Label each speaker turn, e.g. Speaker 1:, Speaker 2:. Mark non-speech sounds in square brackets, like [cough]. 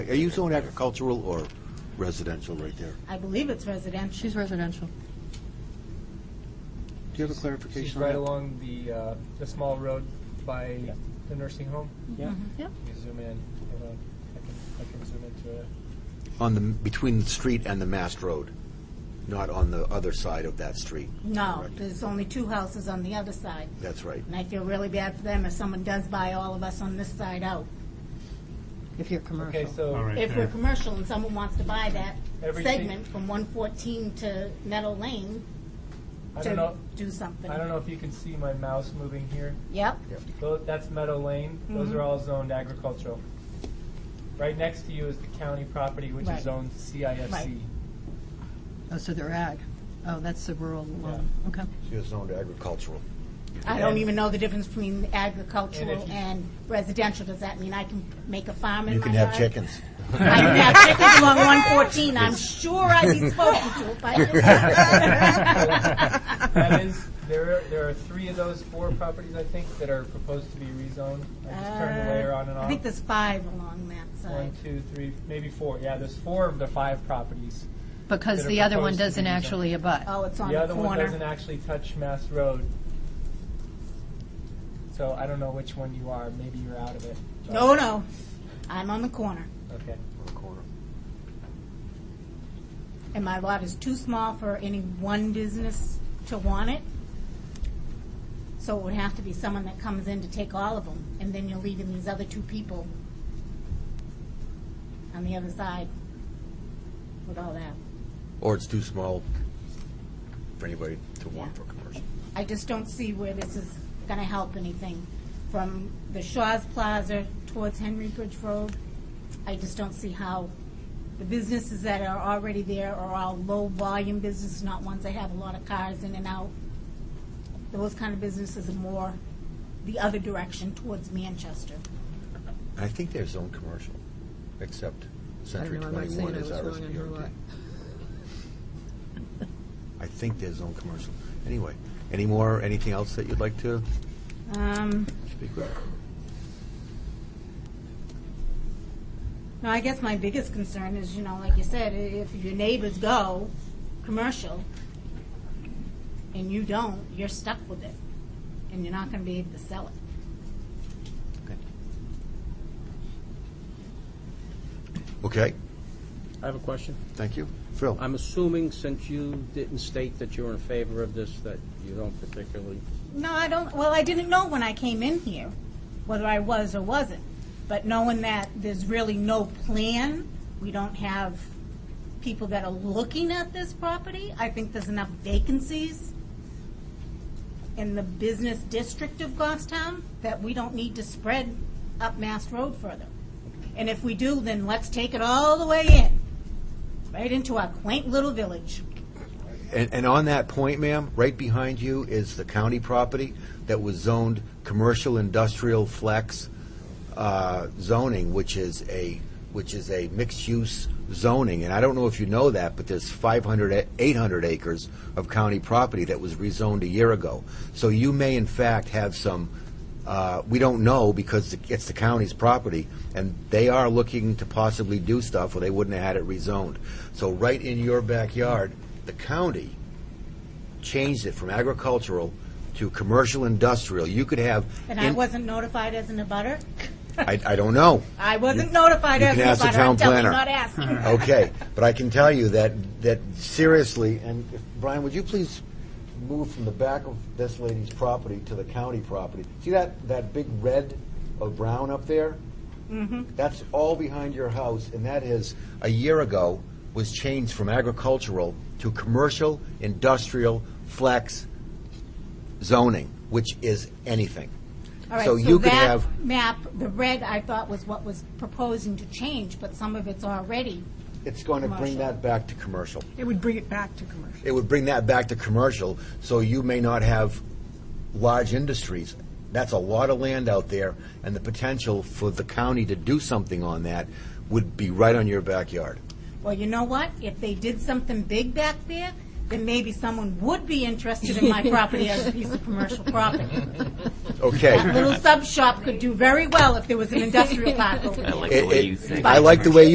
Speaker 1: Are you zone agricultural or residential right there?
Speaker 2: I believe it's residential.
Speaker 3: She's residential.
Speaker 1: Do you have a
Speaker 4: She's
Speaker 1: clarification on
Speaker 4: right
Speaker 1: that?
Speaker 4: along the, uh, the small road by the nursing home.
Speaker 5: Yeah.
Speaker 2: Mm-hmm.
Speaker 4: You zoom in, hold on, I can, I can zoom into it.
Speaker 1: On the, between the street and the mast road, not on the other side of that street.
Speaker 2: No,
Speaker 1: Correct.
Speaker 2: there's only two houses on the other side.
Speaker 1: That's right.
Speaker 2: And I feel really bad for them if someone does buy all of us on this side out.
Speaker 3: If you're commercial.
Speaker 4: Okay,
Speaker 5: All
Speaker 4: so
Speaker 5: right.
Speaker 2: If we're
Speaker 5: there.
Speaker 2: commercial and someone wants to buy that
Speaker 4: Everything-
Speaker 2: segment from 114 to Meadow Lane
Speaker 4: I don't
Speaker 2: to
Speaker 4: know,
Speaker 2: do something.
Speaker 4: I don't know if you can see my mouse moving here.
Speaker 2: Yep,
Speaker 4: Tho- That's Meadow Lane.
Speaker 2: Mm-hmm.
Speaker 4: Those are all zoned agricultural. Right next to you is the county property, which
Speaker 2: Right.
Speaker 4: is zoned
Speaker 2: Right.
Speaker 4: CIFC.
Speaker 3: Oh, so they're ag. Oh, that's the rural one. Okay.
Speaker 1: You're zoned agricultural.
Speaker 2: I don't
Speaker 4: And-
Speaker 2: even know the difference between agricultural
Speaker 4: And if you-
Speaker 2: and residential. Does that mean I can make a farm in
Speaker 1: You
Speaker 2: my
Speaker 1: can have
Speaker 2: yard?
Speaker 1: chickens.
Speaker 2: I can have chickens along 114. I'm sure I'd be spoken
Speaker 1: [laughs]
Speaker 2: to if I
Speaker 4: That is, there are, there are three of those four properties, I think, that are proposed to be rezoned. I just turned the layer on and
Speaker 2: Uh, I think
Speaker 4: off.
Speaker 2: there's five along that side.
Speaker 4: One, two, three, maybe four. Yeah, there's four of the five properties.
Speaker 3: Because
Speaker 4: That are
Speaker 3: the other one
Speaker 4: proposed to
Speaker 3: doesn't
Speaker 4: be zoned.
Speaker 3: actually abut.
Speaker 2: Oh, it's on
Speaker 4: The
Speaker 2: the
Speaker 4: other one doesn't
Speaker 2: corner.
Speaker 4: actually touch Mass Road. So I don't know which one you are. Maybe you're out of it.
Speaker 2: No, Oh, no, I'm on the corner,
Speaker 4: Okay.
Speaker 2: and my lot is too small for any one business to want it. So it would have to be someone that comes in to take all of them, and then you're leaving these other two people on the other side with all that.
Speaker 1: Or it's too small for anybody to want for commercial.
Speaker 2: I just don't see where this is going to help anything. From the Shaw's Plaza towards Henry Bridge Road, I just don't see how the businesses that are already there are all low-volume businesses, not ones that have a lot of cars in and out. Those kind of businesses are more the other direction towards Manchester.
Speaker 1: I think they're zoned commercial, except
Speaker 3: I
Speaker 1: Century
Speaker 3: don't know, I'm not
Speaker 1: 21
Speaker 3: saying I was
Speaker 1: is ours.
Speaker 3: wrong on her lot.
Speaker 1: I think they're zoned commercial. Anyway, any more, anything else that you'd like to
Speaker 2: Um,
Speaker 1: speak with?
Speaker 2: No, I guess my biggest concern is, you know, like you said, i- if your neighbors go commercial and you don't, you're stuck with it and you're not going to be able to sell it.
Speaker 1: Okay. Okay,
Speaker 5: I have a question.
Speaker 1: thank you. Phil?
Speaker 5: I'm assuming since you didn't state that you're in favor of this, that you don't particularly,
Speaker 2: No, I don't, well, I didn't know when I came in here whether I was or wasn't. But knowing that there's really no plan, we don't have people that are looking at this property, I think there's enough vacancies in the business district of Goffstown that we don't need to spread up Mass Road further. And if we do, then let's take it all the way in, right into our quaint little village.
Speaker 1: And, and on that point, ma'am, right behind you is the county property that was zoned commercial industrial flex uh, zoning, which is a, which is a mixed-use zoning. And I don't know if you know that, but there's 500, a- 800 acres of county property that was rezoned a year ago. So you may in fact have some, uh, we don't know because it's the county's property, and they are looking to possibly do stuff, or they wouldn't have had it rezoned. So right in your backyard, the county changed it from agricultural to commercial industrial. You could have.
Speaker 2: And I
Speaker 1: in-
Speaker 2: wasn't notified as an abutter.
Speaker 1: I, I don't know.
Speaker 2: I wasn't notified
Speaker 1: you
Speaker 2: as
Speaker 1: can
Speaker 2: an
Speaker 1: ask the
Speaker 2: abutter. I'm
Speaker 1: town
Speaker 2: telling you,
Speaker 1: planner. [laughs]
Speaker 2: not asking.
Speaker 1: Okay, but I can tell you that, that seriously, and if- Brian, would you please move from the back of this lady's property to the county property? See that, that big red or brown up there? That's all behind your house, and that is, a year ago, was changed from agricultural to commercial, industrial, flex zoning, which is anything.
Speaker 2: All right,
Speaker 1: So you could
Speaker 2: that
Speaker 1: have-
Speaker 2: Map, the red, I thought was what was proposing to change, but some of it's already,
Speaker 1: It's going to bring
Speaker 2: Commercial.
Speaker 1: that back to commercial.
Speaker 6: It would bring it back to commercial.
Speaker 1: it would bring that back to commercial, so you may not have large industries. That's a lot of land out there, and the potential for the county to do something on that would be right on your backyard.
Speaker 2: well, you know what? If they did something big back there, then maybe someone would be interested in my property as a piece of commercial property.
Speaker 1: Okay.
Speaker 7: [laughs]
Speaker 2: Little sub shop could do very well if there was an industrial park over there.
Speaker 7: I like the way you
Speaker 1: It- it-
Speaker 7: think.
Speaker 1: I like the way